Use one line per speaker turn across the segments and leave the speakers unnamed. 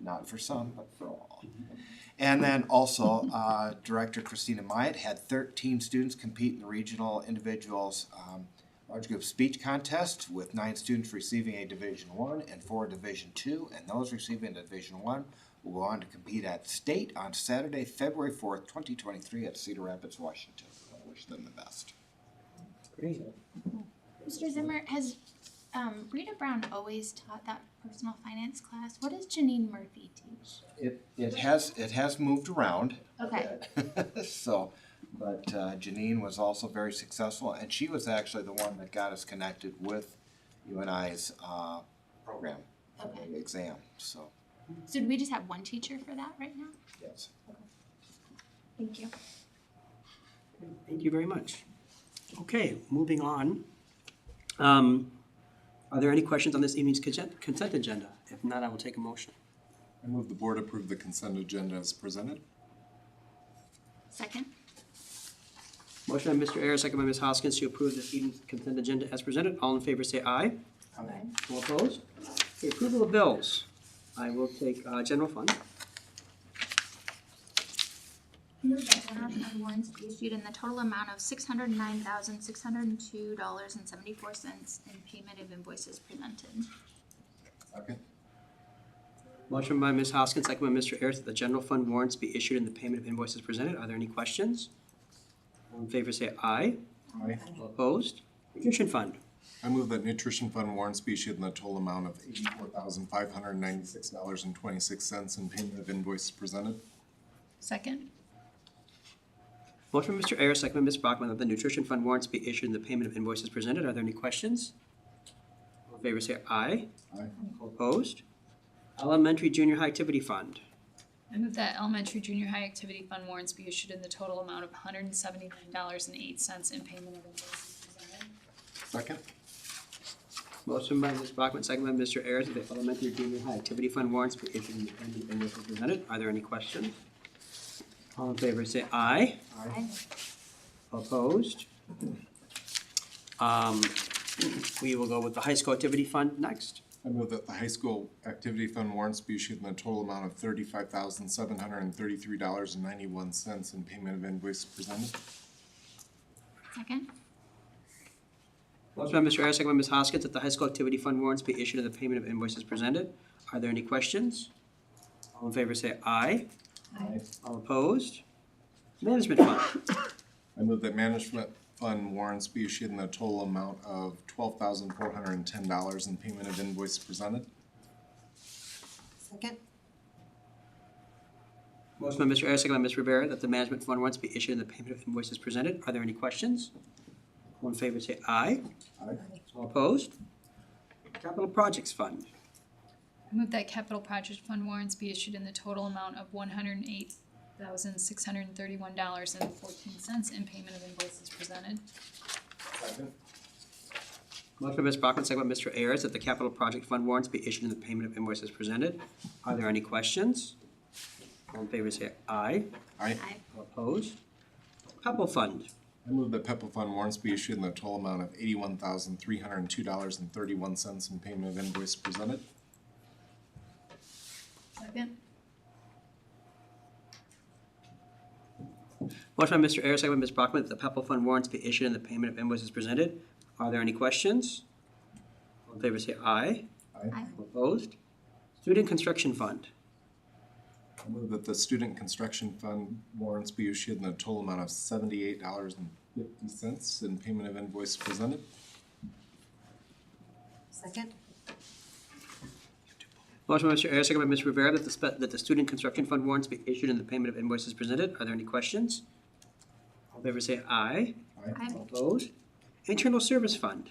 not for some, but for all. And then also, uh, Director Christina Myatt had thirteen students compete in the regional individuals um, large group speech contest with nine students receiving a Division One and four Division Two, and those receiving a Division One will go on to compete at state on Saturday, February fourth, twenty twenty-three at Cedar Rapids, Washington. I wish them the best.
Great.
Mr. Zimmer, has um, Rita Brown always taught that personal finance class? What does Janine Murphy teach?
It, it has, it has moved around.
Okay.
So, but uh, Janine was also very successful, and she was actually the one that got us connected with UNI's uh, program, uh,
Okay.
exam, so,
So do we just have one teacher for that right now?
yes.
Thank you.
Thank you very much. Okay, moving on. Um, Are there any questions on this evening's consent consent agenda? If not, I will take a motion.
I move the board approve the consent agenda as presented.
Second?
Motion by Mr. Ayers, second by Ms. Hoskins, to approve this evening's consent agenda as presented. All in favor, say aye.
Aye.
All opposed? Okay, approval of bills. I will take uh, general fund.
Move that general fund warrants be issued in the total amount of six hundred nine thousand, six hundred and two dollars and seventy-four cents in payment of invoices presented.
Second.
Motion by Ms. Hoskins, second by Mr. Ayers, that the general fund warrants be issued and the payment of invoices presented. Are there any questions? All in favor, say aye.
Aye.
All opposed? Nutrition fund.
I move that nutrition fund warrants be issued in the total amount of eighty-four thousand five hundred ninety-six dollars and twenty-six cents and payment of invoices presented.
Second?
Motion by Mr. Ayers, second by Ms. Brockman, that the nutrition fund warrants be issued and the payment of invoices presented. Are there any questions? All in favor, say aye.
Aye.
All opposed? Elementary Junior High Activity Fund.
I move that elementary junior high activity fund warrants be issued in the total amount of one hundred and seventy-nine dollars and eight cents in payment of invoices presented.
Second.
Motion by Ms. Brockman, second by Mr. Ayers, that the elementary junior high activity fund warrants be issued and the payment of invoices presented. Are there any questions? All in favor, say aye.
Aye.
Opposed? Um, we will go with the high school activity fund next.
I move that the high school activity fund warrants be issued in the total amount of thirty-five thousand seven hundred and thirty-three dollars and ninety-one cents and payment of invoices presented.
Second?
Motion by Mr. Ayers, second by Ms. Hoskins, that the high school activity fund warrants be issued and the payment of invoices presented. Are there any questions? All in favor say aye.
Aye.
All opposed? Management fund.
I move that management fund warrants be issued in the total amount of twelve thousand four hundred and ten dollars and payment of invoices presented.
Second?
Motion by Mr. Ayers, second by Ms. Rivera, that the management fund warrants be issued and the payment of invoices presented. Are there any questions? All in favor say aye.
Aye.
All opposed? Capital projects fund.
I move that capital project fund warrants be issued in the total amount of one hundred and eight thousand six hundred and thirty-one dollars and fourteen cents in payment of invoices presented.
Second.
Motion by Ms. Brockman, second by Mr. Ayers, that the capital project fund warrants be issued and the payment of invoices presented. Are there any questions? All in favor say aye.
Aye.
Aye.
All Opposed? Pepple Fund.
I move that PEPA fund warrants be issued in the total amount of eighty-one thousand three hundred and two dollars and thirty-one cents in payment of invoice presented.
Second?
Motion by Mr. Ayers, second by Ms. Brockman, that the Pepple Fund warrants be issued and the payment of invoices presented. Are there any questions? All in favor say aye.
Aye.
All Opposed? Student Construction Fund.
I move that the student construction fund warrants be issued in the total amount of seventy-eight dollars and fifty cents in payment of invoice presented.
Second?
Motion by Mr. Ayers, second by Ms. Rivera, that the, spe- that the Student Construction Fund warrants be issued and the payment of invoices presented. Are there any questions? All in favor say aye.
Aye.
All Opposed? Internal Service Fund.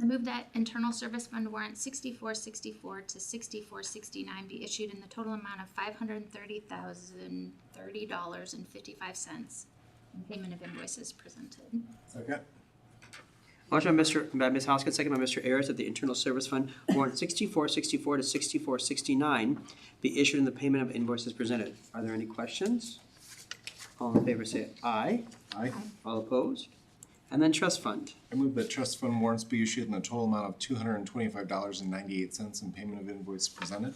I move that internal service fund warrant sixty-four sixty-four to sixty-four sixty-nine be issued in the total amount of five hundred and thirty thousand, thirty dollars and fifty-five cents. Payment of invoices presented.
Second.
Motion by Mr. by Ms. Hoskins, second by Mr. Ayers, that the Internal Service Fund warrant sixty-four sixty-four to sixty-four sixty-nine be issued in the payment of invoices presented. Are there any questions? All in favor say aye.
Aye.
All opposed? And then Trust Fund.
I move that trust fund warrants be issued in the total amount of two hundred and twenty-five dollars and ninety-eight cents in payment of invoice presented.